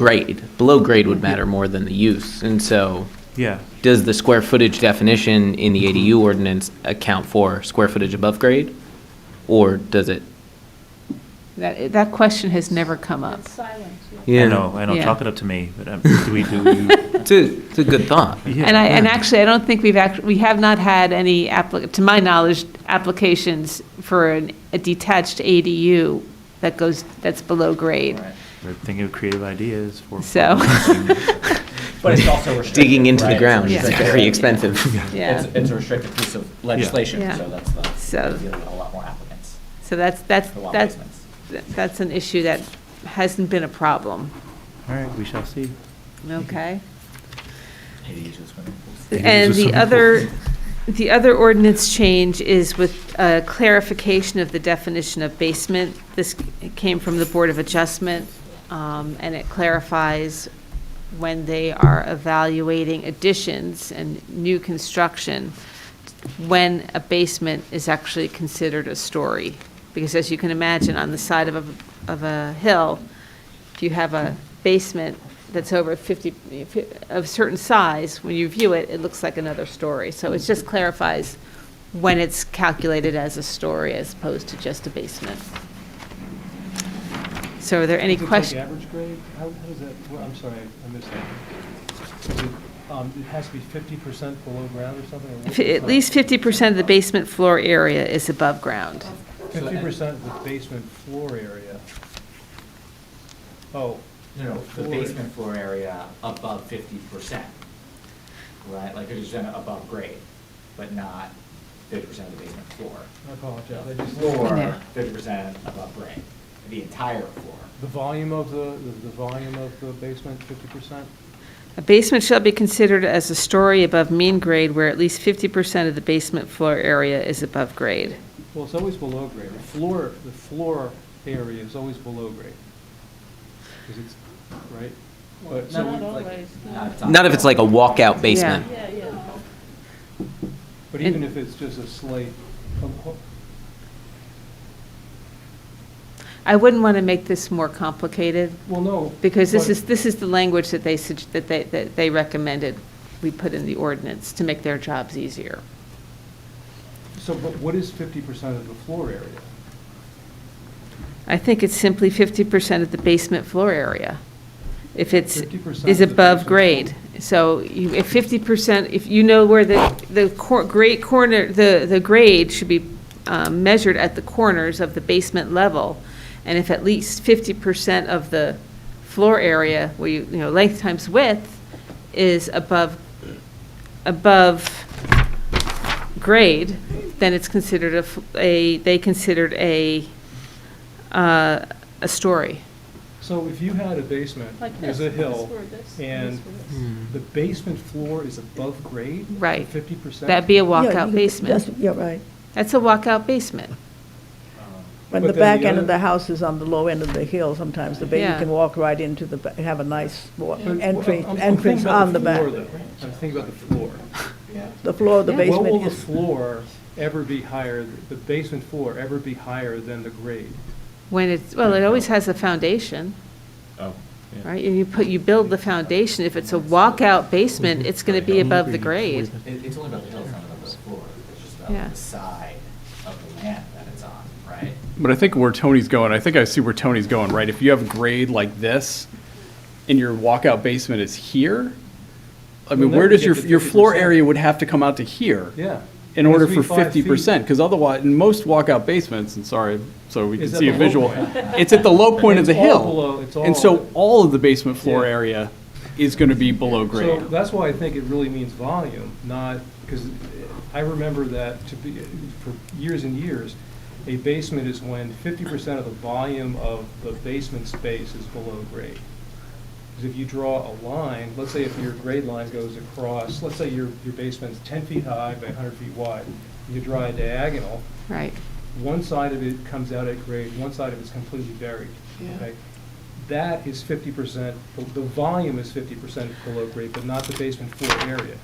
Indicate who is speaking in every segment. Speaker 1: grade. Below grade would matter more than the use. And so
Speaker 2: Yeah,
Speaker 1: does the square footage definition in the ADU ordinance account for square footage above grade? Or does it?
Speaker 3: That, that question has never come up.
Speaker 2: I know, I know,
Speaker 3: Yeah.
Speaker 2: chalk it up to me, but um, do we, do we?
Speaker 1: It's a, it's a good thought.
Speaker 2: yeah,
Speaker 3: And I, and
Speaker 2: yeah.
Speaker 3: actually, I don't think we've act, we have not had any applic, to my knowledge, applications for an- a detached ADU that goes, that's below grade.
Speaker 2: We're thinking of creative ideas for.
Speaker 3: So-
Speaker 4: But it's also restricted.
Speaker 1: Digging into the
Speaker 4: right?
Speaker 1: ground
Speaker 3: Yeah.
Speaker 1: is very expensive.
Speaker 3: Yeah,
Speaker 4: It's, it's a restricted piece of legislation,
Speaker 3: Yeah.
Speaker 4: so that's not,
Speaker 3: So-
Speaker 4: you're dealing with a lot more applicants
Speaker 3: so that's, that's,
Speaker 4: for lot
Speaker 3: that's,
Speaker 4: basements.
Speaker 3: that's an issue that hasn't been a problem,
Speaker 2: All right, we shall see.
Speaker 3: okay?
Speaker 4: ADUs with swimming pools.
Speaker 3: And the other, the other ordinance change is with uh, clarification of the definition of basement. This came from the Board of Adjustment, um, and it clarifies when they are evaluating additions and new construction, when a basement is actually considered a story. Because as you can imagine, on the side of a, of a hill, if you have a basement that's over 50, of certain size, when you view it, it looks like another story. So it just clarifies when it's calculated as a story as opposed to just a basement. So are there any
Speaker 5: Does it take
Speaker 3: questions?
Speaker 5: average grade? How, how does that, well, I'm sorry, I missed that. Is it, um, it has to be fifty percent below ground or something? or what-
Speaker 3: At least 50% of the basement floor area is above ground.
Speaker 5: Fifty percent of the basement floor area. Oh,
Speaker 4: No, no, the
Speaker 5: Floor.
Speaker 4: basement floor area above fifty percent, right? Like, it's done above grade, but not fifty percent of the basement floor.
Speaker 5: I apologize.
Speaker 4: The
Speaker 5: I just-
Speaker 4: Floor,
Speaker 3: Yeah.
Speaker 4: fifty percent above grade, the entire floor.
Speaker 5: The volume of the, the the volume of the basement, fifty percent?
Speaker 3: A basement shall be considered as a story above mean grade where at least 50% of the basement floor area is above grade.
Speaker 5: Well, it's always below grade. The floor, the floor area is always below grade. Because it's, right? But- so-
Speaker 4: Not always. Uh,
Speaker 1: Not if it's like a walkout basement.
Speaker 3: Yeah.
Speaker 5: But
Speaker 3: And-
Speaker 5: even if it's just a slate, um, ho-
Speaker 3: I wouldn't want to make this more complicated.
Speaker 5: well, no.
Speaker 3: Because this
Speaker 5: but-
Speaker 3: is, this is the language that they, sug- that they, that they recommended we put in the ordinance to make their jobs easier.
Speaker 5: So, but what is fifty percent of the floor area?
Speaker 3: I think it's simply fifty percent of the basement floor area. If it's,
Speaker 5: 50%
Speaker 3: is
Speaker 5: of the
Speaker 3: above
Speaker 5: basement.
Speaker 3: grade. So you, if fifty percent, if you know where the, the cor, great corner, the, the grade should be um, measured at the corners of the basement level. And if at least fifty percent of the floor area, where you, you know, length times width is above, above grade, then it's considered a f- a, they considered a, uh, a story.
Speaker 5: So if you had a basement,
Speaker 6: Like
Speaker 5: there's a
Speaker 6: this,
Speaker 5: hill,
Speaker 6: this, or this,
Speaker 5: and
Speaker 6: this, or this.
Speaker 5: the basement floor is above grade?
Speaker 3: Right.
Speaker 5: Fifty percent?
Speaker 3: That'd be a
Speaker 7: Yeah, you
Speaker 3: walkout
Speaker 7: could-
Speaker 3: basement.
Speaker 7: that's- Yeah, right.
Speaker 3: That's a walkout basement.
Speaker 7: When
Speaker 4: um,
Speaker 5: But
Speaker 7: the
Speaker 5: then
Speaker 7: back
Speaker 5: the
Speaker 7: end
Speaker 5: other-
Speaker 7: of the house is on the low end of the hill, sometimes the baby
Speaker 3: Yeah.
Speaker 7: can walk right into the, ba- have a nice wa-
Speaker 5: But- well,
Speaker 7: entry,
Speaker 5: I'm- I'm
Speaker 7: entrance
Speaker 5: thinking about
Speaker 7: on the back.
Speaker 5: floor, though. I'm thinking about the floor.
Speaker 7: The floor of the
Speaker 3: Yeah.
Speaker 5: What will
Speaker 7: basement
Speaker 5: the
Speaker 7: is,
Speaker 5: floor ever be higher, the basement floor ever be higher than the grade?
Speaker 3: When it's, well, it always has a foundation,
Speaker 4: Oh.
Speaker 3: right? And you put, you build the foundation. If it's a walkout basement, it's going to be above the grade.
Speaker 4: It, it's only about the hill, it's not about the floor, it's just
Speaker 3: Yeah.
Speaker 4: about the side of the land that it's on, right?
Speaker 8: But I think where Tony's going, I think I see where Tony's going, right? If you have grade like this and your walkout basement is here, I
Speaker 5: Well,
Speaker 8: mean,
Speaker 5: then
Speaker 8: where
Speaker 5: we
Speaker 8: does
Speaker 5: get
Speaker 8: your,
Speaker 5: to
Speaker 8: your floor
Speaker 5: 50%.
Speaker 8: area would have to come out to here?
Speaker 5: Yeah.
Speaker 8: In
Speaker 5: It has
Speaker 8: order
Speaker 5: to be
Speaker 8: for
Speaker 5: five
Speaker 8: fifty
Speaker 5: feet.
Speaker 8: percent, because otherwise, in most walkout basements, and sorry, so we can
Speaker 5: Is at
Speaker 8: see a
Speaker 5: the low
Speaker 8: visual,
Speaker 5: point.
Speaker 8: it's at the low point of
Speaker 5: It's
Speaker 8: the
Speaker 5: all
Speaker 8: hill.
Speaker 5: below- it's all-
Speaker 8: And so all of the basement floor
Speaker 5: Yeah.
Speaker 8: area is gonna be below
Speaker 5: So
Speaker 8: grade.
Speaker 5: that's why I think it really means volume, not, because I remember that to be, for years and years, a basement is when fifty percent of the volume of the basement space is below grade. Because if you draw a line, let's say if your grade line goes across, let's say your, your basement's ten feet high by hundred feet wide, you draw a diagonal,
Speaker 3: Right.
Speaker 5: one side of it comes out at grade, one side of it's completely buried, okay? That is fifty percent, the volume is fifty percent below grade, but not the basement floor area.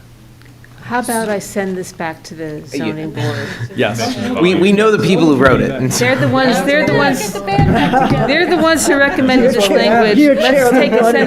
Speaker 3: How about I send this back to the zoning board?
Speaker 8: Yes.
Speaker 1: We, we know the people who wrote it. and so-
Speaker 3: They're the ones, they're the
Speaker 6: Get
Speaker 3: ones,
Speaker 6: the band back together.
Speaker 3: they're the ones who recommended this language. Let's take a
Speaker 7: Chair.
Speaker 3: send